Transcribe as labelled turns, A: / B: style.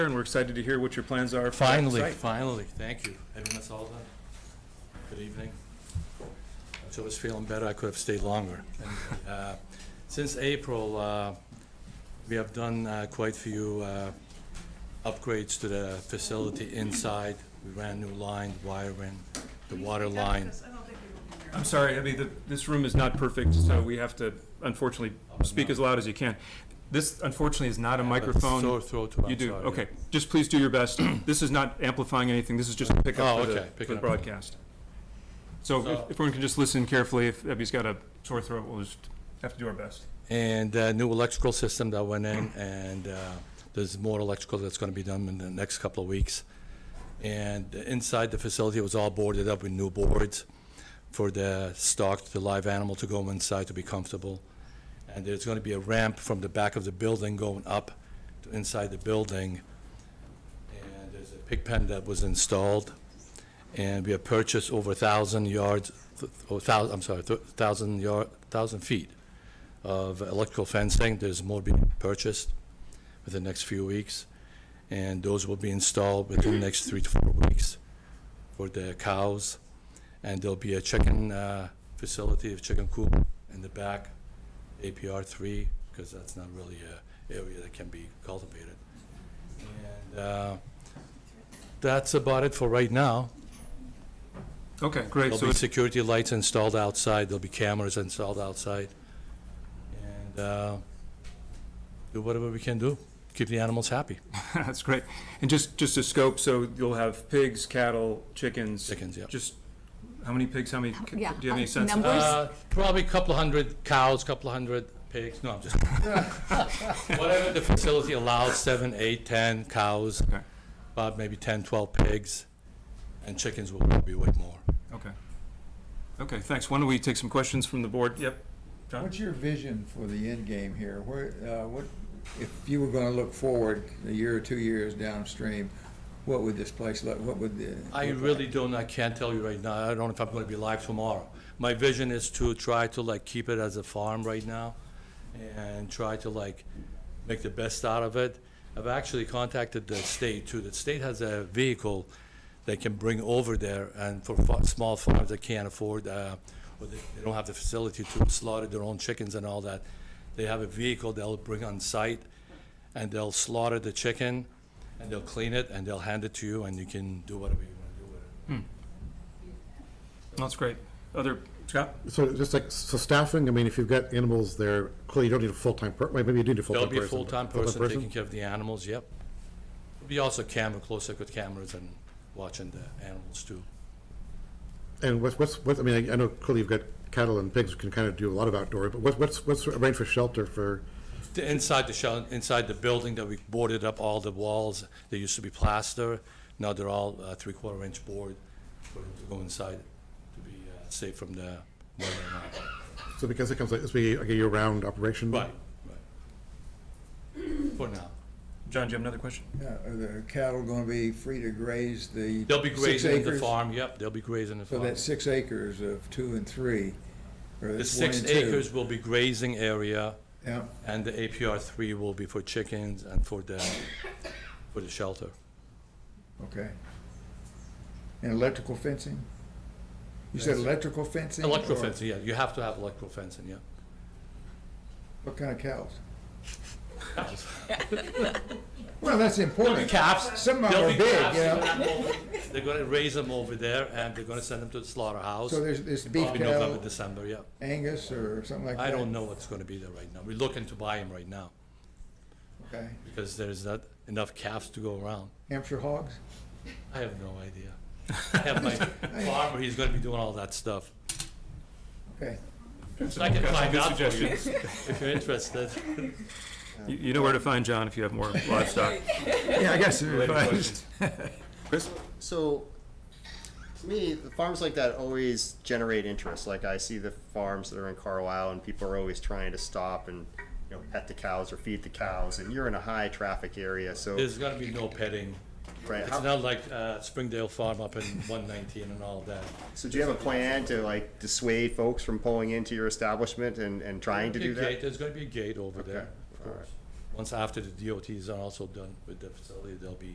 A: and we're excited to hear what your plans are. for that
B: Finally,
A: site.
B: finally, thank you. I mean, that's all done. Good evening. So I was feeling better, I could have stayed longer. Anyway, uh, Since April, uh, we have done uh, quite a few uh, upgrades to the facility inside. We ran new line, wiring, the water line.
A: I'm sorry, I mean, the- this room is not perfect, so we have to unfortunately speak as loud as you can. This unfortunately is not a
B: Sore
A: microphone.
B: throat, I'm
A: You do,
B: sorry.
A: okay. Just please do your best. This is not amplifying anything, this is just a
B: Oh,
A: pickup for the,
B: okay,
A: for
B: picking
A: the
B: up.
A: broadcast. So if-
B: So-
A: if everyone can just listen carefully, if Ebby's got a sore throat, we'll just have to do our best.
B: And uh new electrical system that went in, and uh, there's more electrical that's going to be done in the next couple of weeks. And inside the facility, it was all boarded up with new boards for the stock, the live animal to go inside to be comfortable. And there's going to be a ramp from the back of the building going up to inside the building. And there's a pig pen that was installed. And we have purchased over 1,000 yards, or 1,000, I'm sorry, 1,000 yard, 1,000 feet of electrical fencing. There's more being purchased within the next few weeks, and those will be installed within the next three to four weeks for the cows. And there'll be a chicken uh, facility, a chicken coop in the back, APR three, because that's not really a area that can be cultivated. And uh, that's about it for right now.
A: Okay, great. So
B: There'll be
A: it's-
B: security lights installed outside, there'll be cameras installed outside, and uh, do whatever we can do, keep the animals happy,
A: that's great. And just, just a scope, so you'll have pigs, cattle, chickens.
B: chickens, yeah.
A: Just, how many pigs, how many, do you
C: yeah,
A: have any
C: uh,
A: sense? of-
C: number?
B: Uh, Probably a couple of hundred cows, couple of hundred pigs, no, I'm just, whatever the facility allows, seven, eight, 10 cows,
A: Okay.
B: about maybe 10, 12 pigs, and chickens will probably way more.
A: Okay. Okay, thanks. Why don't we take some questions from the board? Yep. John?
D: What's your vision for the end game here? Where, uh, what, if you were gonna look forward a year or two years downstream, what would this place look, what would the?
B: I
D: look
B: really
D: like?
B: don't, I can't tell you right now, I don't know if I'm gonna be live tomorrow. My vision is to try to like keep it as a farm right now, and try to like make the best out of it. I've actually contacted the state too, the state has a vehicle they can bring over there, and for fa- small farms that can't afford, uh, or they they don't have the facility to slaughter their own chickens and all that, they have a vehicle they'll bring on site, and they'll slaughter the chicken, and they'll clean it, and they'll hand it to you, and you can do whatever you want to do with it.
A: That's great. Other, Scott?
E: So just like, so staffing, I mean, if you've got animals there, clearly you don't need a full-time per, wait, maybe you do need a
B: There'll
E: full-time person.
B: be a full-time
E: but-
B: person taking care of the animals, yep. There'll be also camera, close-circuit cameras and watching the animals too.
E: And what's, what's, what, I mean, I- I know clearly you've got cattle and pigs can kind of do a lot of outdoor, but what's, what's, what's arranged for shelter for,
B: The- Inside the shell, inside the building that we boarded up all the walls, they used to be plaster, now they're all uh, three-quarter inch board for them to go inside to be uh, safe from the weather and all that.
E: so because it comes like, this be like a year-round operation?
B: Right, right. For now.
A: John, do you have another question?
D: Yeah, uh, Are the cattle gonna be free to graze the?
B: They'll be
D: six
B: grazing in the
D: acres?
B: farm, yep, they'll be grazing in the
D: So
B: farm.
D: that's six acres of two and three, or
B: The
D: that's one
B: six
D: and two.
B: acres will be grazing area,
D: Yeah,
B: And the APR three will be for chickens and for the, for the shelter.
D: okay. And electrical fencing? You said
B: Yes.
D: electrical fencing?
B: Electro
D: or
B: fencing, yeah, you have to have electro fencing, yeah.
D: What kind of cows? Well, that's important.
B: Caps.
D: Some of them are big, you know.
B: They're gonna raise them over there and they're gonna send them to the slaughterhouse.
D: So there's this beef
B: Probably November,
D: cattle,
B: December, yeah.
D: Angus or something like that?
B: I don't know what's gonna be there right now. We're looking to buy them right now
D: Okay.
B: because there's not enough calves to go around.
D: Hampshire hogs?
B: I have no idea. I have my farmer, he's gonna be doing all that stuff.
D: Okay.
B: I can
A: Got some
B: find
A: good
B: out for you
A: suggestions.
B: if you're interested.
A: You you know where to find John if you have more livestock.
D: Yeah, I guess.
A: Related questions.
F: So, to me, the farms like that always generate interest. Like I see the farms that are in Carlisle, and people are always trying to stop and you know pet the cows or feed the cows. And you're in a high traffic area, so
B: There's gonna be no petting.
F: right.
B: It's
F: how-
B: not like uh, Springdale Farm up in 119 and all that.
F: so do you have a plan to like dissuade folks from pulling into your establishment and, and trying to
B: There'll be
F: do
B: a
F: that?
B: gate, There's gonna be a gate over there,
F: Okay,
B: of
F: all
B: course. Once after the DOTs are also done with the facility, they'll be